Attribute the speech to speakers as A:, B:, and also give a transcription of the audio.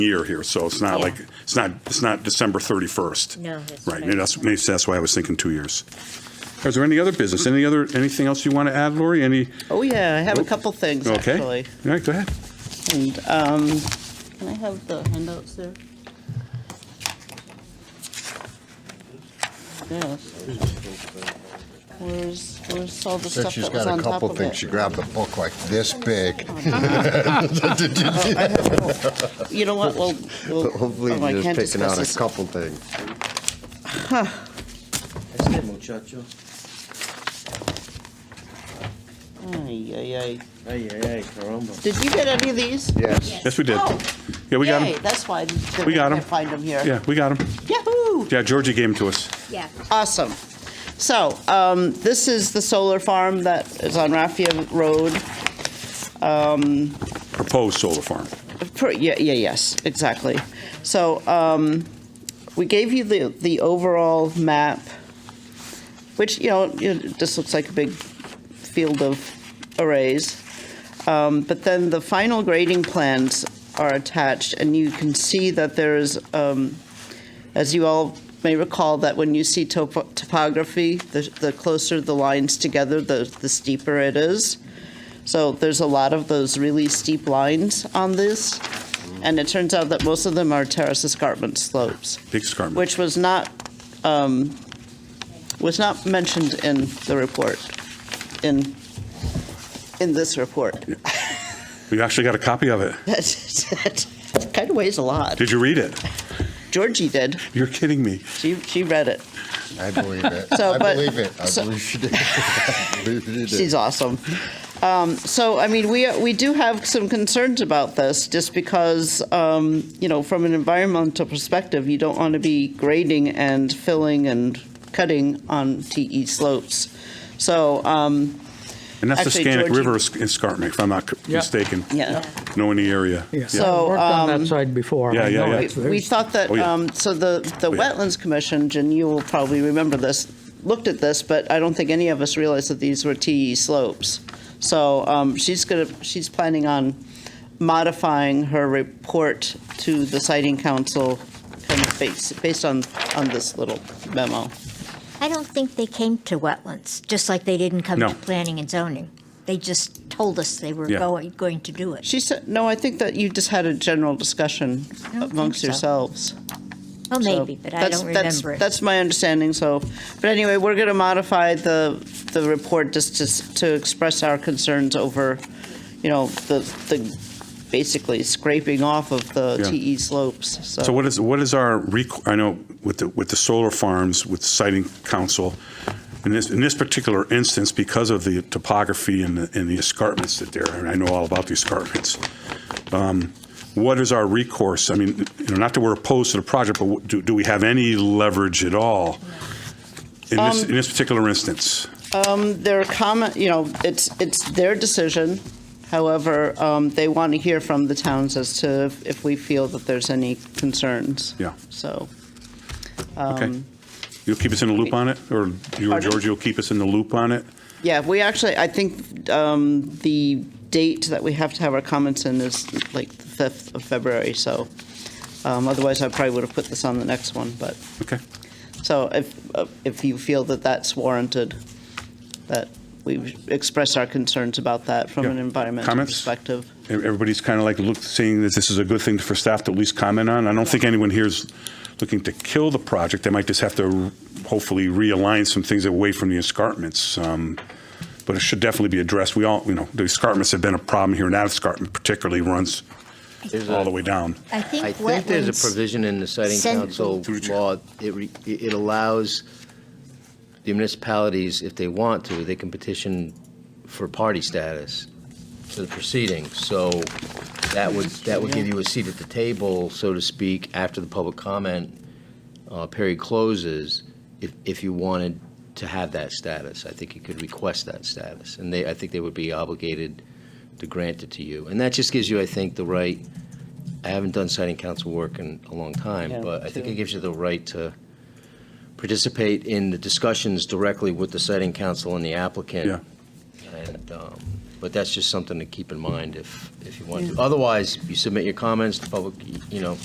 A: year here, so it's not
B: Yeah.
A: like, it's not, it's not December 31st.
B: No, that's
A: Right,
B: right.
A: and that's, maybe that's why I was thinking two years. Is there any other business, any other, anything else you want to add, Lori, any,
C: Oh, yeah, I have a couple things,
A: okay? All
C: actually.
A: right, go ahead.
C: And, um, can I have the handouts there? Yes. Where's, where's all the
D: Said
C: stuff
D: she's
C: that was
D: got
C: on
D: a
C: top
D: couple
C: of
D: things.
C: it?
D: She grabbed a book like this big.
C: You know what, well, we'll-
E: Hopefully,
C: oh, I
E: you're
C: can't
E: just picking out
C: discuss this.
E: a couple things.
F: Este muchacho.
C: Ay, ay, ay.
F: Ay, ay, ay, caramba.
C: Did you get any of these?
E: Yes.
A: Yes, we did.
C: Oh,
A: Yeah, we got
C: Yay,
A: him.
C: that's why. they-
A: We got
C: they
A: 'em.
C: Find them here.
A: Yeah, we got him.
C: Yahoo!
A: Yeah, Georgie gave him to us.
B: Yeah.
C: Awesome. So, um, this is the solar farm that is on Raffia Road.
A: Proposed solar farm.
C: Per- Yeah, yeah, yes, exactly. So, um, we gave you the, the overall map, which, you know, it just looks like a big field of arrays. Um, but then the final grading plans are attached, and you can see that there is, um, as you all may recall, that when you see topo- topography, the, the closer the lines together, the, the steeper it is. So there's a lot of those really steep lines on this, and it turns out that most of them are terrace escarpment slopes,
A: Big escarpment.
C: which was not, um, was not mentioned in the report, in, in this report.
A: We actually got a copy of it.
C: That kind of weighs a lot.
A: Did you read it?
C: Georgie did.
A: You're kidding me.
C: She, she read it.
D: I believe it.
C: So,
D: I
C: but-
D: believe it. I
C: so-
D: believe she did. I believe she did.
C: She's awesome. Um, so, I mean, we, we do have some concerns about this, just because, um, you know, from an environmental perspective, you don't want to be grading and filling and cutting on TE slopes. So, um,
A: And that's the
C: Actually,
A: Scannick
C: Georgie-
A: River esc- escarpment, if I'm not c-
G: Yeah.
A: mistaken,
C: yeah.
A: knowing the area.
G: Yeah,
A: Yeah.
C: So,
G: I worked on that side before.
A: Yeah,
G: I
A: yeah,
G: know
A: yeah.
G: it's
C: We
G: very-
C: we thought that,
A: Oh, yeah.
C: um, so the, the
A: Oh, yeah.
C: Wetlands Commission, and you will probably remember this, looked at this, but I don't think any of us realized that these were TE slopes. So um, she's going to, she's planning on modifying her report to the Siting Council kind of based, based on, on this little memo.
B: I don't think they came to wetlands, just like they didn't come
A: No.
B: to planning and zoning. They just told us they were
A: Yeah.
B: going, going to do it.
C: She said, no, I think that you just had a general discussion
B: don't think
C: amongst
B: so.
C: yourselves.
B: Well,
C: So
B: maybe, but I
C: that's-
B: don't
C: that's-
B: remember it.
C: That's my understanding, so, but anyway, we're going to modify the, the report just to, s- to express our concerns over, you know, the, the, basically scraping off of the
A: Yeah.
C: TE slopes,
A: So
C: so.
A: what is, what is our, requ- I know with the, with the solar farms, with siting council, in this, in this particular instance, because of the topography and the, and the escarpments that there, and I know all about the escarpments, um, what is our recourse? I mean, you know, not that we're opposed to the project, but what- do, do we have any leverage at all in this, in this particular instance?
C: Their comment, you know, it's, it's their decision, however, um, they want to hear from the towns as to if- if we feel that there's any concerns.
A: Yeah.
C: So,
A: Okay. You'll keep us in the loop on it, or you or
C: Pardon?
A: Georgie will keep us in the loop on it?
C: yeah, we actually, I think um, the date that we have to have our comments in is like the 5th of February, so um, otherwise I probably would have put this on the next one, but,
A: Okay.
C: so if, uh, if you feel that that's warranted, that we express our concerns about that from
A: Yeah.
C: an environmental
A: Comments?
C: perspective.
A: Everybody's kind of like look, seeing that this is a good thing for staff to at least comment on. I don't think anyone here's looking to kill the project. They might just have to hopefully realign some things away from the escarpments. Um, But it should definitely be addressed. We all, you know, the escarpments have been a problem here, and that escarpment particularly runs
F: There's
A: all the
F: a,
A: way down.
B: I think
F: I think there's a
B: wetlands,
F: provision in the citing
B: Send-
F: council law, it, re- it allows the municipalities, if they want to, they can petition for party status to the proceedings. So that would, that would give you a seat at the table, so to speak, after the public comment uh, period closes, if, if you wanted to have that status. I think you could request that status, and they, I think they would be obligated to grant it to you. And that just gives you, I think, the right, I haven't done citing council work in a long
C: Yeah,
F: time, but I think
C: too.
F: it gives you the right to participate in the discussions directly with the citing council and the applicant.
A: Yeah.
F: And, um, But that's just something to keep in mind if, if you want to. Otherwise, you submit your comments, the public, you know,